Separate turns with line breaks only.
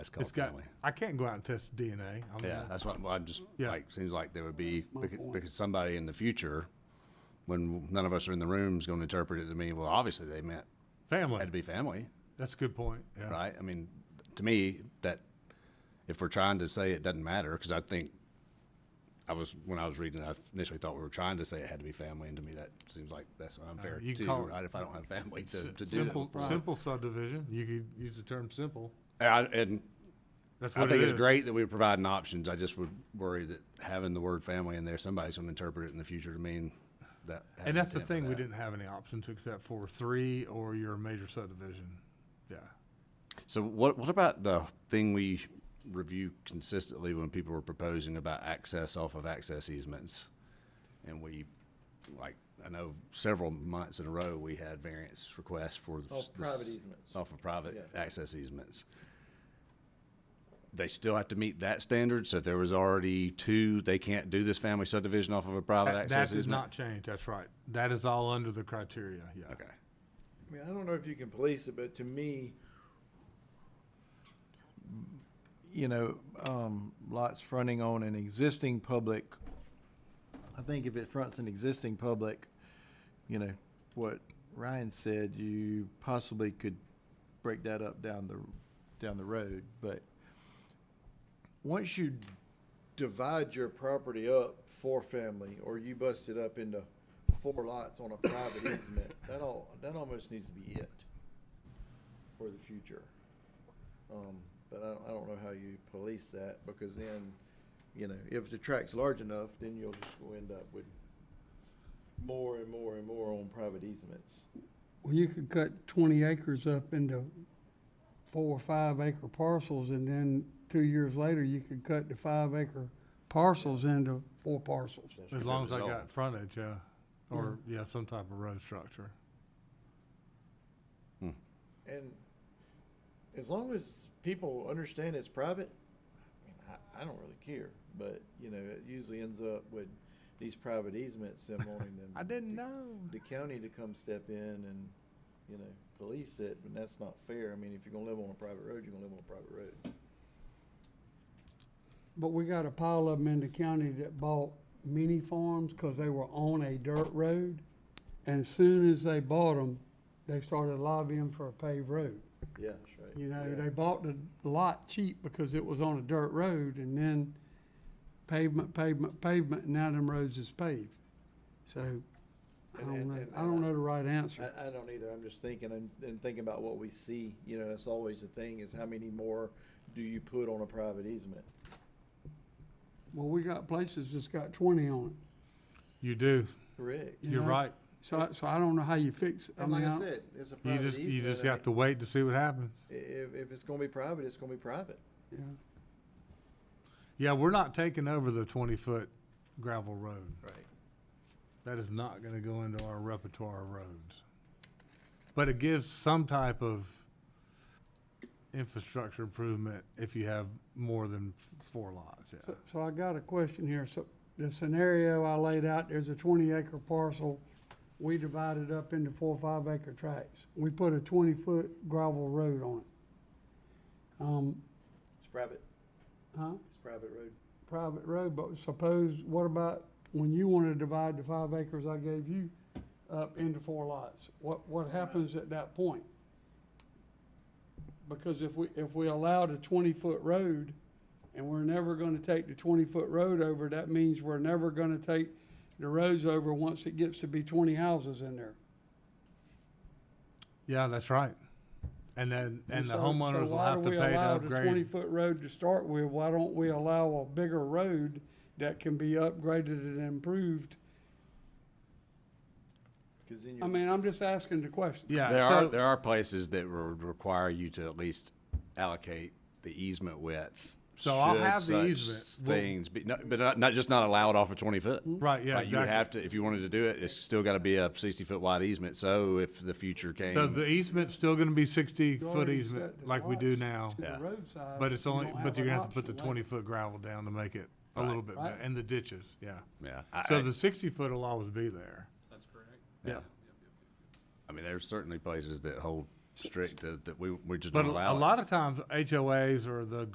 That's called
It's got,
family.
I can't go out and test DNA. I mean,
Yeah, that's what, well, I'm just,
Yeah.
like, seems like there would be, because because somebody in the future, when none of us are in the room, is gonna interpret it to mean, well, obviously they meant,
Family,
had to be family,
that's a good point, yeah.
right? I mean, to me, that, if we're trying to say it doesn't matter, because I think, I was, when I was reading, it, I initially thought we were trying to say it had to be family, and to me, that seems like that's unfair
Uh, you
too,
call it-
right? If I don't have family to,
Si-
to do
Simple,
that.
simple subdivision, you could use the term simple,
And I- And
that's
I
what it
think
is.
it's great that we're providing options. I just would worry that having the word family in there, somebody's gonna interpret it in the future to mean that. had
And that's the
intent for
thing, we
that.
didn't have any options except for three or your major subdivision, yeah.
So what, what about the thing we review consistently when people were proposing about access off of access easements? And we, like, I know several months in a row, we had variance requests for.
Off
s- the
private
s-
easements.
Off of private
Yeah.
access easements. They still have to meet that standard, so if there was already two, they can't do this family subdivision off of a private
That that
access
does
easement?
not change, that's right, that is all under the criteria, yeah.
Okay.
I mean, I don't know if you can police it, but to me, you know, um, lots fronting on an existing public, I think if it fronts an existing public, you know, what Ryan said, you possibly could break that up down the, down the road, but once you divide your property up for family, or you bust it up into four lots on a private easement, that all, that almost needs to be it for the future. Um, but I don't, I don't know how you police that, because then, you know, if the tract's large enough, then you'll just go end up with more and more and more on private easements.
Well, you could cut twenty acres up into four or five acre parcels, and then two years later, you could cut the five acre parcels into four parcels.
As long as I
was
got
old.
frontage, yeah, or, yeah, some type of road structure.
And as long as people understand it's private, I mean, I, I don't really care. But, you know, it usually ends up with these private easements and wanting them. the-
know.
The county to come step in and, you know, police it, and that's not fair. I mean, if you're gonna live on a private road, you're gonna live on a private road.
But we got a pile of them in the county that bought mini farms, cause they were on a dirt road. And as soon as they bought them, they started lobbying for a paved road.
Yeah, that's right.
You know,
Yeah.
they bought the lot cheap because it was on a dirt road and then pavement, pavement, pavement, and now them roads is paved. So, I
And-
don't
and-
know,
and- uh,
I don't know the right answer.
I, I don't either. I'm just thinking, and, and thinking about what we see, you know, that's always the thing, is how many more do you put on a private easement?
Well, we got places that's got twenty on
You do,
Correct.
it. you
you're
know?
right,
So, I- so I don't know how you fix, I
And like
mean,
I
I-
said, it's a
you
private
just,
easement.
you just
I
have to wait to see what happens.
mean, If, if it's gonna be private, it's gonna be private.
yeah,
uh,
Yeah, we're not taking over the twenty-foot gravel road.
Right.
That is not gonna go into our repertoire of roads. But it gives some type of infrastructure improvement if you have more than f- four lots, yeah.
so, so I got a question here. So the scenario I laid out, there's a twenty acre parcel. We divided up into four or five acre tracts. We put a twenty foot gravel road on it. Um,
It's private,
huh?
it's private road.
private road, but suppose, what about when you want to divide the five acres I gave you up into four lots? What, what happens at that point? Because if we, if we allow the twenty-foot road, and we're never gonna take the twenty-foot road over, that means we're never gonna take the roads over once it gets to be twenty houses in there.
Yeah, that's right. And then, and the
so- so
homeowners will have to pay to
Why do we allow the
upgrade.
twenty-foot road to start with? Why don't we allow a bigger road that can be upgraded and improved
Cause then
I
you're,
mean, I'm just asking the question.
There
Yeah,
are,
so,
there are places that would require you to at least allocate the easement width.
So I'll
should
have the
such
easement. We'll-
Things, be- no- but not, not just not allowed off of twenty foot.
Right, yeah,
Like, You would
exactly.
have to, if you wanted to do it, it's still gotta be a sixty foot wide easement, so if the future
so
came,
the easement's still gonna be
You
sixty-foot
already
easement
set the
like we do
lots
now.
to the
Yeah.
roadside,
But it's
you
only,
don't have
but you're
an
gonna have to put the
option later.
twenty-foot gravel down to make it a
Right.
little bit, better.
Right.
and the ditches, yeah.
yeah. I-
So
I-
the sixty-foot will always be there.
That's correct.
Yeah.
I mean, there's certainly places that hold strict that, that we, we just
But
don't
a
allow it.
lot of times HOAs or the